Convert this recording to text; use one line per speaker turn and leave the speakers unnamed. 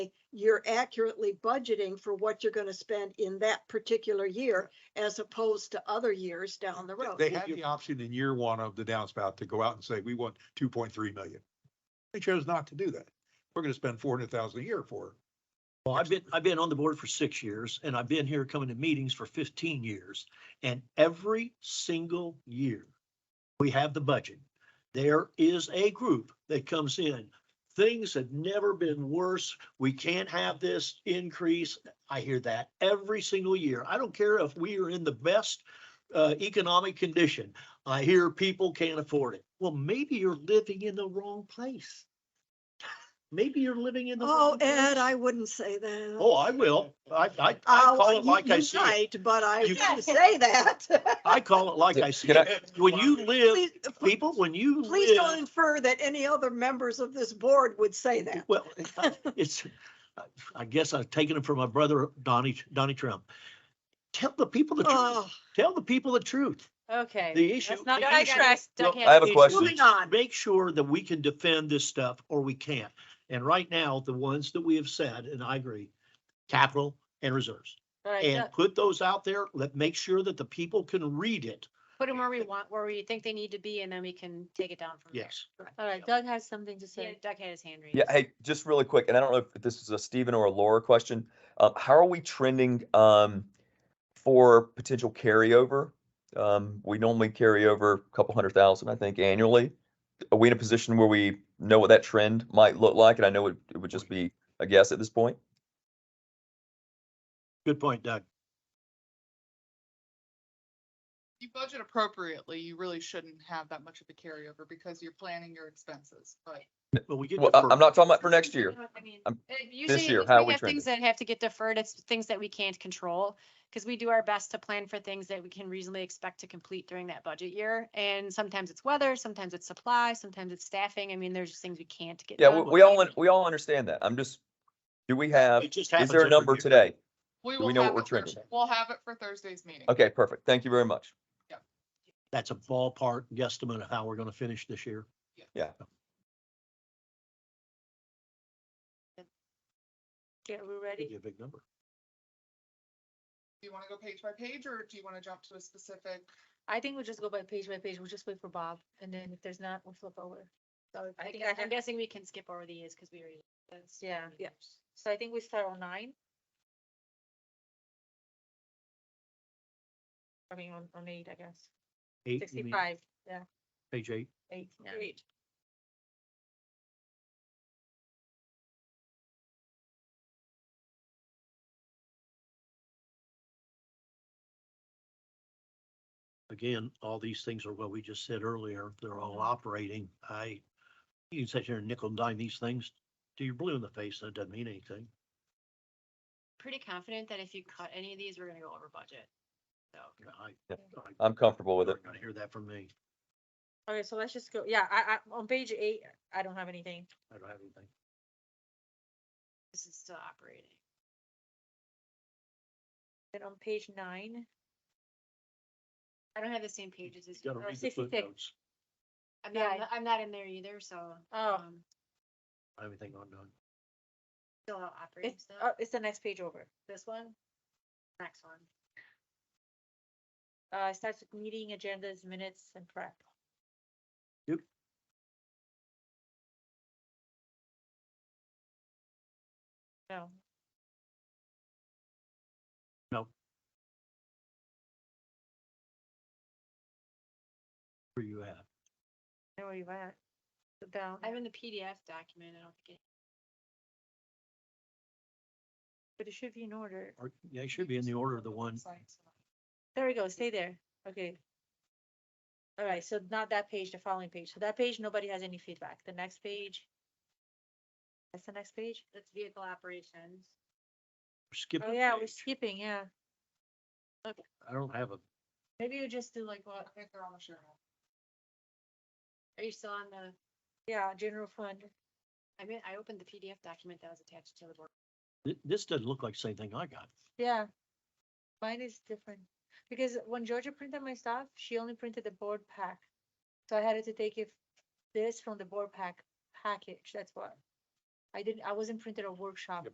you're accurately budgeting for what you're gonna spend in that particular year as opposed to other years down the road.
They had the option in year one of the downspout to go out and say, we want two point three million. They chose not to do that. We're gonna spend four hundred thousand a year for.
Well, I've been, I've been on the board for six years and I've been here coming to meetings for fifteen years. And every single year, we have the budget. There is a group that comes in. Things have never been worse. We can't have this increase. I hear that every single year. I don't care if we are in the best uh, economic condition. I hear people can't afford it. Well, maybe you're living in the wrong place. Maybe you're living in the.
Oh,
wrong place.
Ed, I wouldn't say that.
Oh, I will. I, I, I
Oh,
call it
you-
like I
you
see it.
might, But I
You-
wouldn't say that.
I call it like I see it. When you live,
Please-
people, when you
Please don't
live,
infer that any other members of this board would say that.
well, it's, I guess I've taken it from my brother Donnie, Donnie Trump. Tell the people the truth.
Oh,
Tell the people the truth.
Okay.
The issue.
Let's not
the issue-
digress. Doug
Well,
Hanson.
I have a
It's
question.
Moving on.
Make sure that we can defend this stuff or we can't. And right now, the ones that we have said, and I agree, capital and reserves.
All right,
And
Doug,
put those out there. Let, make sure that the people can read it.
Put them where we want, where we think they need to be, and then we can take it down from there.
Yes.
All right, Doug has something to say. Doug had his hand raised.
Yeah, hey, just really quick, and I don't know if this is a Stephen or a Laura question. Uh, how are we trending um, for potential carryover? Um, we normally carry over a couple hundred thousand, I think, annually. Are we in a position where we know what that trend might look like? And I know it, it would just be a guess at this point.
Good point, Doug.
you budget appropriately, you really shouldn't have that much of a carryover because you're planning your expenses, but.
Well, we get.
Well, I,
deferred.
I'm not talking about for next year.
I mean,
Um,
uh, Usually,
year,
we
how are we
have things that have to get deferred, it's things that we can't control, because we do our best to plan for things that we can reasonably expect to complete during that budget year. And sometimes it's weather, sometimes it's supply, sometimes it's staffing, I mean, there's just things we can't get
Yeah,
done.
we,
but
we all, un- we all understand that. I'm just, do we have,
It just
is
happens
there a
every
number
year.
today?
We
Do we
will
know what
have
we're
it for-
trending?
We'll have it for Thursday's meeting.
Okay, perfect. Thank you very much.
That's a ballpark guesstimate of how we're gonna finish this year.
Yeah, we're
Give
ready.
you a big number.
Do you want to go page by page or do you want to jump to a specific?
I think we'll just go by page by page, we'll just wait for Bob, and then if there's not, we'll flip over. So
I
I
think
think,
I
I'm
have-
guessing we can skip over these, because we already. that's-
Yeah.
Yeah.
So I think we start on nine. I mean, on, on eight, I guess.
Eight, you mean,
Sixty-five, yeah,
page eight.
eight, yeah.
Great.
Again, all these things are what we just said earlier. They're all
Mm-hmm.
operating. I, you can sit here and nickel and dime these things till you're blue in the face and it doesn't mean anything.
Pretty confident that if you cut any of these, we're gonna go over budget. So,
You know, I-
Yeah.
I-
I'm comfortable with it.
You're gonna hear that from me.
Okay, so let's just go, yeah, I, I, on page eight, I don't have anything.
I don't have anything.
this is still operating.
Then on page nine,
I don't have the same pages
You
as you.
gotta
uh,
read the
66.
footnotes.
I'm not,
Yeah.
I'm not in there either, so.
Oh.
um,
I have anything on uh, none.
Still out operating
it's,
stuff.
uh, it's the next page over.
This one? Next one.
Uh, it starts with meeting agendas, minutes and prep.
Yep.
No,
Where you at?
I know where you at. Go Down.
I'm in the PDF document. I don't think it,
But it should be in order.
Or, yeah, it should be in the order of the one.
Science.
There we go, stay there, okay. All right, so not that page, the following page, so that page, nobody has any feedback, the next page. That's the next page,
that's vehicle operations.
Skip.
oh
a
yeah, we're
page.
skipping, yeah,
I don't have a,
Maybe you just do like
I
what,
think they're on the share. now.
are you still on the,
yeah, general fund,
I mean, I opened the PDF document that was attached to the board.
thi- this doesn't look like the same thing I got.
yeah. Mine is different, because when Georgia printed my stuff, she only printed the board pack. So I had to take if this from the board pack package, that's why. I didn't, I wasn't printed a workshop
Yep.